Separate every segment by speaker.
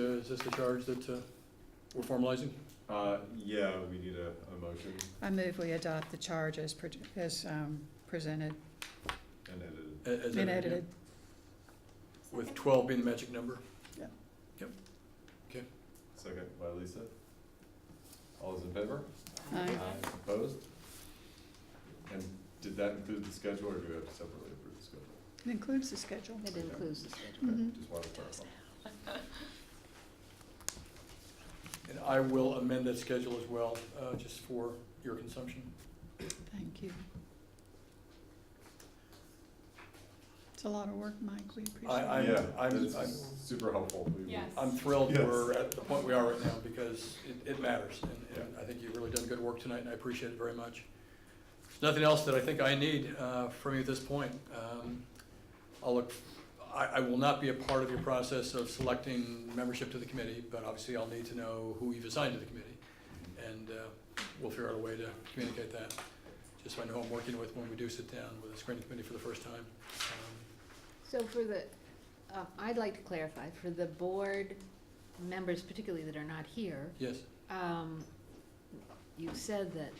Speaker 1: is this the charge that uh, we're formalizing?
Speaker 2: Uh, yeah, we need a, a motion
Speaker 3: I move we adopt the charge as, pre- as um, presented
Speaker 2: and edited.
Speaker 1: a- as
Speaker 3: and edited.
Speaker 1: With twelve being the magic number?
Speaker 2: Second by Lisa. All those in favor?
Speaker 3: Aye.
Speaker 2: Opposed? And did that include the schedule or do we have to separately approve the schedule?
Speaker 3: It includes the schedule.
Speaker 4: It includes the schedule.
Speaker 2: Okay,
Speaker 3: Mhm.
Speaker 2: just wanted to clarify.
Speaker 1: And I will amend that schedule as well, uh, just for your consumption.
Speaker 3: Thank you. It's a lot of work, Mike. We
Speaker 1: I,
Speaker 3: appreciate it.
Speaker 1: I'm,
Speaker 2: Yeah,
Speaker 1: I'm,
Speaker 2: this
Speaker 1: I'm,
Speaker 2: is super helpful. We will-
Speaker 5: Yes.
Speaker 1: I'm thrilled
Speaker 2: Yes.
Speaker 1: we're at the point we are right now because it, it matters. And, and I think you've really done good work tonight and I appreciate it very much. There's nothing else that I think I need, uh, from you at this point. Um, I'll look, I, I will not be a part of your process of selecting membership to the committee, but obviously I'll need to know who you've assigned to the committee. And, uh, we'll figure out a way to communicate that, just so I know who I'm working with when we do sit down with the screening committee for the first time. Um,
Speaker 4: So for the, uh, I'd like to clarify, for the board members particularly that are not here,
Speaker 1: Yes,
Speaker 4: um, you said that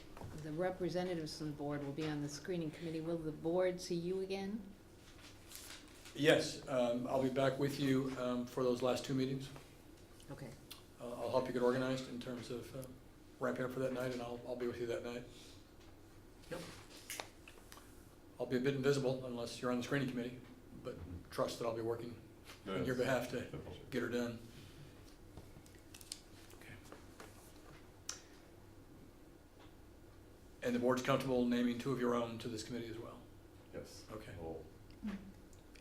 Speaker 4: the representatives from the board will be on the screening committee. Will the board see you again?
Speaker 1: yes, um, I'll be back with you, um, for those last two meetings.
Speaker 4: Okay.
Speaker 1: I'll, I'll help you get organized in terms of uh, ramping up for that night, and I'll, I'll be with you that night. Yep. I'll be a bit invisible unless you're on the screening committee, but trust that I'll be working
Speaker 2: No,
Speaker 1: on your
Speaker 2: it's-
Speaker 1: behalf to get her done. Okay. And the board's comfortable naming two of your own to this committee as well?
Speaker 2: Yes.
Speaker 1: Okay,
Speaker 2: We'll
Speaker 1: uh,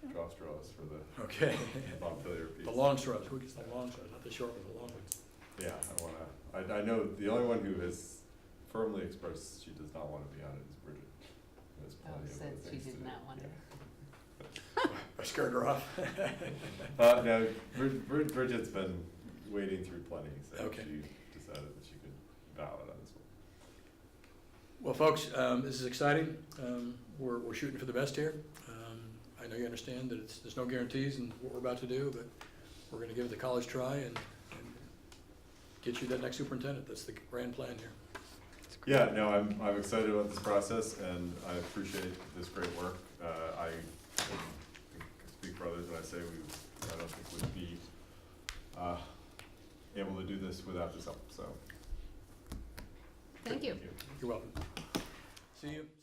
Speaker 3: Mm.
Speaker 2: draw straws for the
Speaker 1: okay.
Speaker 2: popular piece.
Speaker 1: The long shrubs, who gets the long shrubs, not the short ones, the long ones.
Speaker 2: Yeah, I wanna, I, I know the only one who has firmly expressed she does not wanna be on it is Bridget. There's
Speaker 4: Oh,
Speaker 2: plenty of other
Speaker 4: said she
Speaker 2: things
Speaker 4: did
Speaker 2: to do.
Speaker 4: not want it.
Speaker 1: I scared her off.
Speaker 2: Yeah. Uh, no, Brid- Brid- Bridget's been waiting through plenty, so
Speaker 1: Okay.
Speaker 2: she decided that she could bow out on this one.
Speaker 1: Well, folks, um, this is exciting. Um, we're, we're shooting for the best here. Um, I know you understand that it's, there's no guarantees in what we're about to do, but we're gonna give it the college try and, and get you that next superintendent. That's the grand plan here.
Speaker 2: Yeah, no, I'm, I'm excited about this process and I appreciate this great work. Uh, I um, think I speak for others when I say we, I don't think we'd be, uh, able to do this without this help, so.
Speaker 4: Thank you.
Speaker 1: You're welcome. See you.